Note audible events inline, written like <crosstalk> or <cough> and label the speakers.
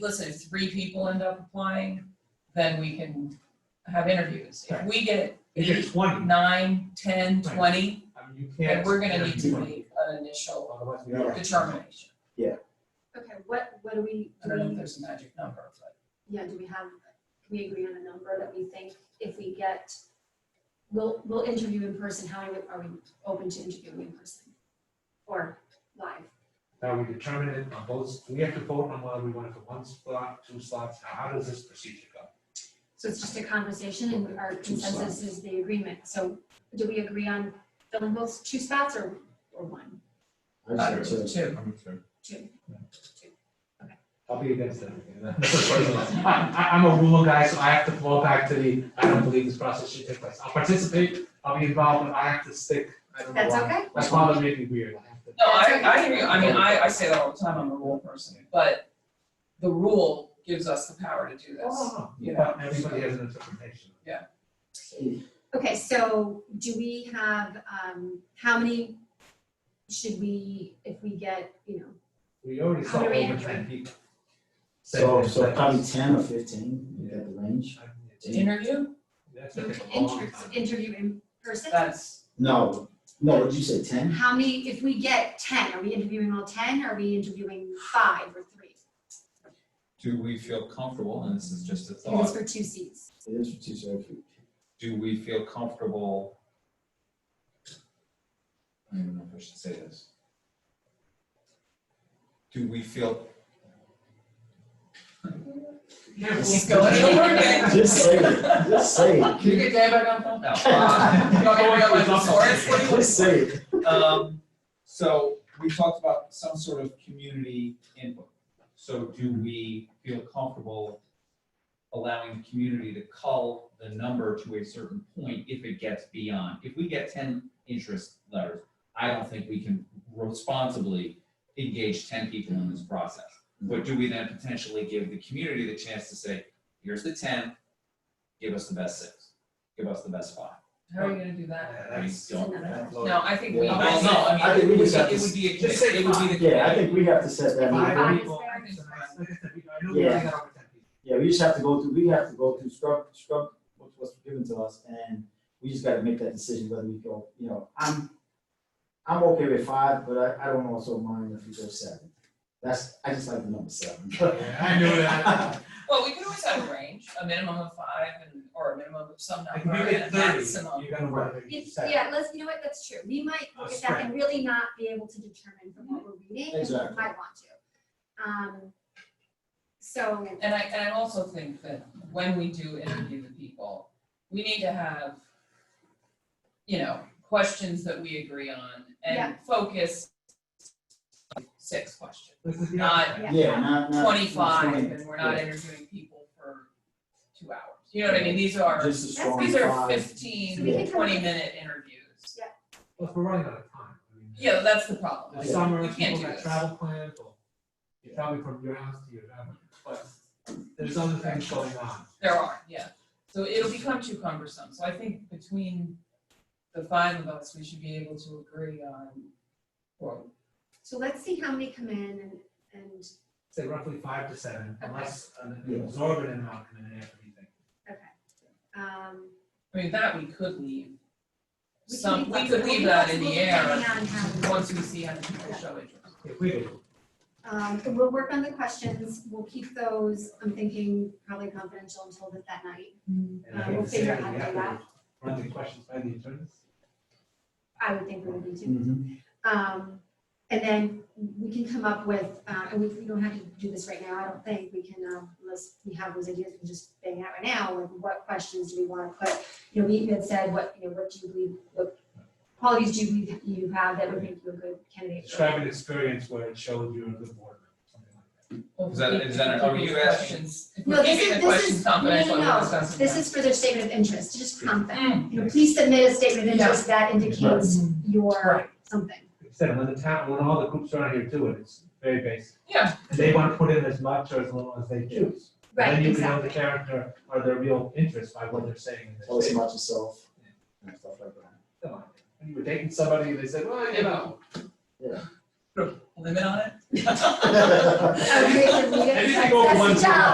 Speaker 1: listen, if three people end up applying, then we can have interviews. If
Speaker 2: Right.
Speaker 1: we get
Speaker 2: If it's twenty,
Speaker 1: nine, ten,
Speaker 2: Right.
Speaker 1: twenty,
Speaker 2: I mean, you can't.
Speaker 1: then we're gonna need to
Speaker 2: interview
Speaker 1: make an initial
Speaker 2: Otherwise, we don't.
Speaker 1: determination.
Speaker 3: Okay, what, what do we,
Speaker 1: I
Speaker 3: do
Speaker 1: don't know if
Speaker 3: we,
Speaker 1: there's a magic number, but
Speaker 3: yeah, do we have, can we agree on a number that we think if we get, we'll, we'll interview in person, how many are we open to interviewing in person? Or live?
Speaker 2: Now, we determine it on both, we have to vote on whether we want it for one slot, two slots, how how does this procedure go?
Speaker 3: So it's just a conversation and our consensus is the agreement. So do we agree on filling both two spots or, or one?
Speaker 1: uh, two.
Speaker 3: Two?
Speaker 2: I'll be against everything. <laughs> I, I- I'm a rule guy, so I have to fall back to the, I don't believe this process should take place. I'll participate, I'll be involved, but I have to stick. I don't know
Speaker 3: That's
Speaker 2: why.
Speaker 3: okay?
Speaker 2: My father made me weird. I have to-
Speaker 1: No, I,
Speaker 3: That's
Speaker 1: I
Speaker 3: okay.
Speaker 1: agree, I mean, I, I say that all the time, I'm a rule person, but the rule gives us the power to do this.
Speaker 2: Oh,
Speaker 1: you
Speaker 2: yeah, everybody has an interpretation.
Speaker 3: Okay, so do we have, um, how many should we, if we get, you know,
Speaker 2: We already
Speaker 3: How
Speaker 2: saw
Speaker 3: do we
Speaker 2: over
Speaker 3: enter
Speaker 2: ten people.
Speaker 4: So, so um,
Speaker 2: Seven.
Speaker 4: probably ten or fifteen, you got the range?
Speaker 2: I mean, it's-
Speaker 1: To interview,
Speaker 2: that's
Speaker 3: you
Speaker 2: gonna
Speaker 3: can
Speaker 2: take a long
Speaker 3: inter-
Speaker 2: time.
Speaker 3: interview in person?
Speaker 1: that's,
Speaker 4: No, no, what did you say, ten?
Speaker 3: How many, if we get ten, are we interviewing all ten, are we interviewing five or three?
Speaker 5: Do we feel comfortable, and this is just a
Speaker 3: If it's
Speaker 5: thought,
Speaker 3: for two seats.
Speaker 4: It is for two, so if you-
Speaker 5: do we feel comfortable? I don't even know if I should say this. Do we feel,
Speaker 1: he's <laughs> going over again.
Speaker 4: Just say it, just say it.
Speaker 1: <laughs> You get David on phone? No. Uh, You want me to go
Speaker 5: <laughs>
Speaker 1: like the source? What do you want?
Speaker 4: Just say it.
Speaker 5: um, so we talked about some sort of community input. So do we feel comfortable allowing the community to cull the number to a certain point if it gets beyond? If we get ten interest letters, I don't think we can responsibly engage ten people in this process. But do we then potentially give the community the chance to say, here's the ten, give us the best six, give us the best five?
Speaker 1: How are you gonna do that?
Speaker 2: Yeah,
Speaker 5: I
Speaker 2: that's-
Speaker 5: don't.
Speaker 2: that's low.
Speaker 1: No, I think we.
Speaker 4: Yeah.
Speaker 5: Well, no, I
Speaker 4: I
Speaker 5: mean,
Speaker 4: think
Speaker 5: it
Speaker 4: we
Speaker 5: would,
Speaker 4: just have
Speaker 5: be- it
Speaker 4: to-
Speaker 5: would be a
Speaker 2: just
Speaker 5: committee,
Speaker 2: say
Speaker 5: it would be the.
Speaker 4: Yeah, I think we have to set that number.
Speaker 2: Five
Speaker 3: Five
Speaker 2: people,
Speaker 3: is
Speaker 1: fair.
Speaker 2: like I said, we- I know we already got over ten people.
Speaker 4: Yeah, we just have to go through, we have to go through scrub, scrub what's, what's given to us, and we just gotta make that decision whether we go, you know, I'm, I'm okay with five, but I, I don't also mind if we go seven. That's, I just like the number seven.
Speaker 2: Yeah, I knew that.
Speaker 1: Well, we can always have a range, a minimum of five and, or a minimum of some
Speaker 2: Like,
Speaker 1: number
Speaker 2: if you get
Speaker 1: and a
Speaker 2: thirty,
Speaker 1: maximum.
Speaker 2: you're gonna work.
Speaker 3: It's- Yeah, let's, you know what, that's true, we might
Speaker 2: Oh,
Speaker 3: look at that and really not be able to determine from what we're reading, and we
Speaker 4: Exactly.
Speaker 3: might want to. Um, so,
Speaker 1: And I, and I also think that when we do interview the people, we need to have, you know, questions that we agree on and focus on six questions,
Speaker 2: This is the
Speaker 1: Not-
Speaker 2: other thing.
Speaker 4: Yeah, not, not.
Speaker 1: twenty-five,
Speaker 4: not-
Speaker 1: and we're not
Speaker 4: Uh, yeah.
Speaker 1: interviewing people for two hours. You know what I mean? These are,
Speaker 4: Just a
Speaker 3: That's-
Speaker 4: strong
Speaker 1: these are
Speaker 4: five.
Speaker 1: fifteen,
Speaker 4: We
Speaker 3: can come up with-
Speaker 1: twenty-minute interviews.
Speaker 2: Well, if we're running out of time. I mean,
Speaker 1: Yeah, that's the problem.
Speaker 2: The
Speaker 1: Like,
Speaker 2: summer,
Speaker 1: we can't
Speaker 2: people
Speaker 1: do
Speaker 2: got
Speaker 1: this.
Speaker 2: travel plans, or you're traveling from your house to your family, but there's other things going on.
Speaker 1: There are, yeah. So it'll become too cumbersome. So I think between the five of us, we should be able to agree on, or,
Speaker 3: so let's see how many come in and, and,
Speaker 2: Say roughly five to seven,
Speaker 3: Okay.
Speaker 2: unless an
Speaker 4: Yeah.
Speaker 2: absorbent amount come in after you think.
Speaker 3: um.
Speaker 1: I mean, that we could leave.
Speaker 3: We can
Speaker 1: Some,
Speaker 3: be
Speaker 1: we could
Speaker 3: flexible.
Speaker 1: leave
Speaker 3: We'll be
Speaker 1: that in the
Speaker 3: flexible
Speaker 1: air
Speaker 3: depending on how-
Speaker 1: once we see how many people show interest.
Speaker 2: If we do.
Speaker 3: Um, and we'll work on the questions, we'll keep those, I'm thinking probably confidential until that- that night.
Speaker 2: And I
Speaker 3: Uh,
Speaker 2: hate
Speaker 3: we'll
Speaker 2: to say
Speaker 3: figure
Speaker 2: it,
Speaker 3: out how
Speaker 2: we
Speaker 3: to
Speaker 2: have
Speaker 3: do
Speaker 2: to run the questions by the attorneys.
Speaker 3: I would think we would need to.
Speaker 4: Mhm.
Speaker 3: Um, and then we can come up with, uh, and we, we don't have to do this right now, I don't think, we can, um, unless we have those ideas, we just bang out right now, like what questions do we wanna put? You know, we even said, what, you know, what do you believe, what qualities do you believe you have that would make you a good candidate? for-
Speaker 2: Describe an experience where it showed you're a good board member, something like that.
Speaker 5: Is that- is that- are you
Speaker 1: These
Speaker 5: asking-
Speaker 1: questions- if
Speaker 3: No,
Speaker 1: we're
Speaker 3: this
Speaker 1: keeping
Speaker 3: is-
Speaker 1: the
Speaker 3: this
Speaker 1: questions
Speaker 3: is- no, no,
Speaker 1: confidential,
Speaker 3: no, no.
Speaker 1: we're discussing
Speaker 3: This
Speaker 1: that.
Speaker 3: is for their statement of interest, just prompt them,
Speaker 1: Mm,
Speaker 3: you know, please submit a statement of interest that indicates your
Speaker 1: Right.
Speaker 3: something.
Speaker 2: Like I said, when the town, when all the groups around here do it, it's very basic.
Speaker 1: Yeah.
Speaker 2: And they want to put in as much or as little as they choose.
Speaker 3: Right,
Speaker 2: Then you can know the
Speaker 3: exactly.
Speaker 2: character or their real interest by what they're saying in
Speaker 4: Tell us
Speaker 2: this. statement.
Speaker 4: about yourself and stuff like that.
Speaker 2: Come on. When you were dating somebody, they said, well, you know.
Speaker 4: Yeah.
Speaker 6: limit on it?
Speaker 4: Okay, so we get-
Speaker 3: Anything
Speaker 4: <laughs>
Speaker 3: over <laughs>
Speaker 4: that's the
Speaker 3: one's
Speaker 4: job.